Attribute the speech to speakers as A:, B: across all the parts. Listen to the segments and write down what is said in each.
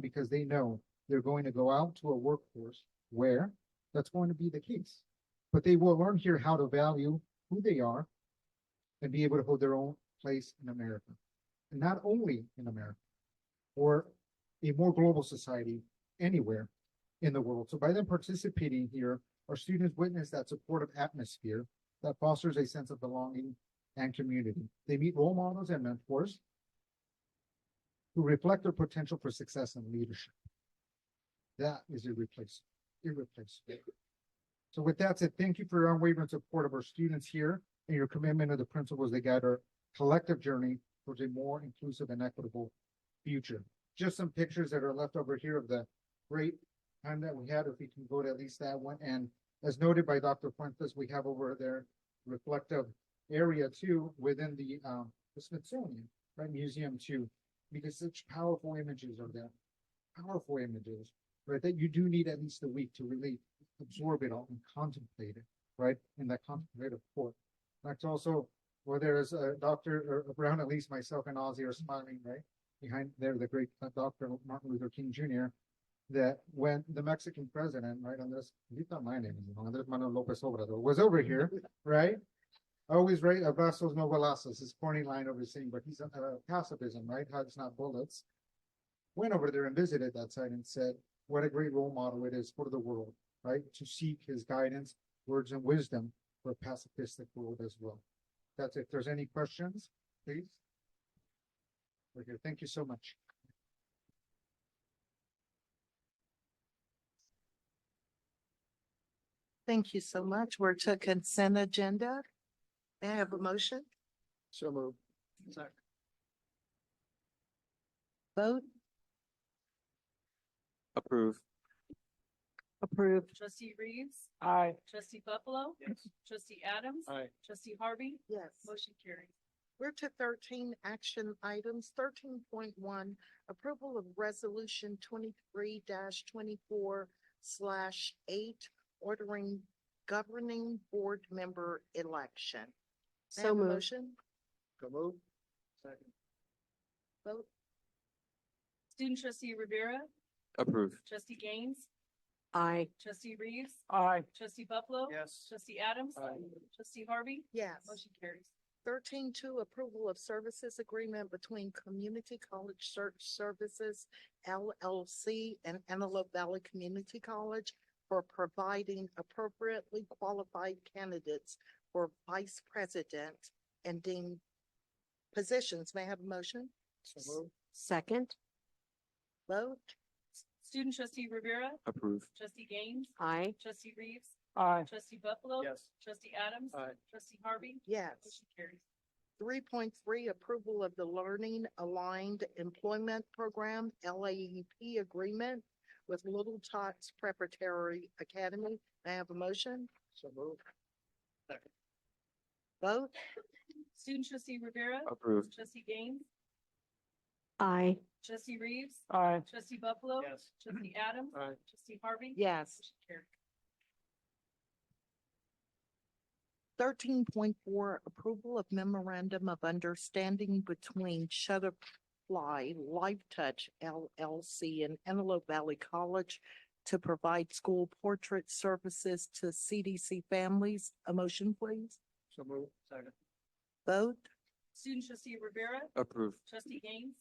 A: because they know they're going to go out to a workforce where that's going to be the case. But they will learn here how to value who they are and be able to hold their own place in America. And not only in America, or a more global society anywhere in the world. So by them participating here, our students witness that supportive atmosphere that fosters a sense of belonging and community. They meet role models and mentors who reflect their potential for success and leadership. That is irreplaceable, irreplaceable. So with that said, thank you for your unwavering support of our students here and your commitment to the principles that guide our collective journey towards a more inclusive and equitable future. Just some pictures that are left over here of the great time that we had, if we can go to at least that one. And as noted by Dr. Fuentes, we have over there reflective area too within the um the Smithsonian, right, museum too. Because such powerful images are there, powerful images, right, that you do need at least a week to really absorb it all and contemplate it, right, in that contemplative court. That's also where there's a doctor or Brown, at least myself and Ozzy are smiling, right? Behind there, the great uh, Dr. Martin Luther King Jr that when the Mexican president, right, on this, my name is Andres Manuel Lopez Obrador, was over here, right? I always write abrazos no balazos, his corny line over saying, but he's a uh, pacifism, right? Hugs not bullets. Went over there and visited that site and said, what a great role model it is for the world, right? To seek his guidance, words, and wisdom for a pacifistic world as well. That's it. If there's any questions, please. We're here. Thank you so much.
B: Thank you so much. We're to consent agenda. May I have a motion?
A: So moved.
B: Vote
C: Approve.
B: approved.
D: Trustee Reeves,
C: Aye.
D: trustee Buffalo. Trustee Adams.
C: Aye.
D: Trustee Harvey,
B: Yes.
D: motion carries.
B: We're to thirteen action items. Thirteen point one, approval of resolution twenty-three twenty-four slash eight, ordering governing board member election. May I
E: So
B: have a
E: moved.
B: motion?
A: So moved.
B: Vote
D: Student trustee Rivera,
C: Approve.
D: trustee Gaines,
E: Aye.
D: trustee Reeves,
C: Aye.
D: trustee Buffalo.
C: Yes.
D: Trustee Adams. Trustee Harvey,
B: yes.
D: motion carries.
B: Thirteen two, approval of services agreement between Community College Search Services LLC and Antelope Valley Community College for providing appropriately qualified candidates for vice president and dean positions. May I have a motion?
E: Second.
B: Vote?
D: Student trustee Rivera,
C: Approve.
D: trustee Gaines,
E: Aye.
D: trustee Reeves,
C: Aye.
D: trustee Buffalo.
C: Yes.
D: Trustee Adams.
C: Aye.
D: Trustee Harvey,
B: Yes.
D: motion carries.
B: Three point three, approval of the Learning Aligned Employment Program, LAEP agreement with Little Tots Preparatory Academy. May I have a motion?
A: So moved.
B: Vote?
D: Student trustee Rivera,
C: Approve.
D: trustee Gaines,
E: Aye.
D: trustee Reeves,
C: Aye.
D: trustee Buffalo.
C: Yes.
D: Trustee Adams.
C: Aye.
D: Trustee Harvey.
B: Yes.
D: Motion carries.
B: Thirteen point four, approval of memorandum of understanding between Shutterfly Life Touch LLC and Antelope Valley College to provide school portrait services to CDC families. A motion, please.
A: So moved. Second.
B: Vote?
D: Student trustee Rivera,
C: Approve.
D: trustee Gaines,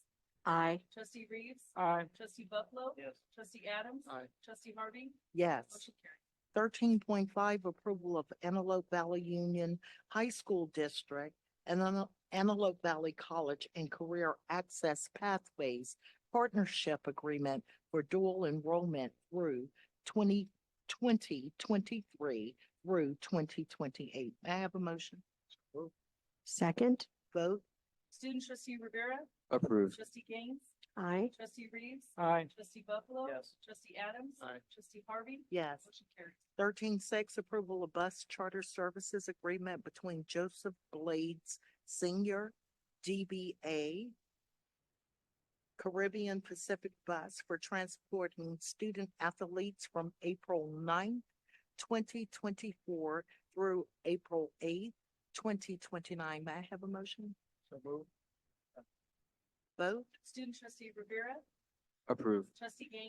E: Aye.
D: trustee Reeves,
C: Aye.
D: trustee Buffalo,
C: Yes.
D: trustee Adams,
C: Aye.
D: trustee Harvey,
B: Yes.
D: motion carries.
B: Thirteen point five, approval of Antelope Valley Union High School District and Ante- Antelope Valley College and Career Access Pathways Partnership Agreement for dual enrollment through 2020-23 through twenty twenty-eight. May I have a motion?
E: Second.
B: Vote?
D: Student trustee Rivera,
C: Approve.
D: trustee Gaines,
E: Aye.
D: trustee Reeves,
C: Aye.
D: trustee Buffalo,
C: Yes.
D: trustee Adams,
C: Aye.
D: trustee Harvey,
B: Yes.
D: motion carries.
B: Thirteen six, approval of bus charter services agreement between Joseph Blades Senior, DBA, Caribbean Pacific Bus for transporting student athletes from April 9th, twenty twenty-four through April eighth, twenty twenty-nine. May I have a motion?
A: So moved.
B: Vote?
D: Student trustee Rivera,
C: Approved.
D: Trustee Gaines.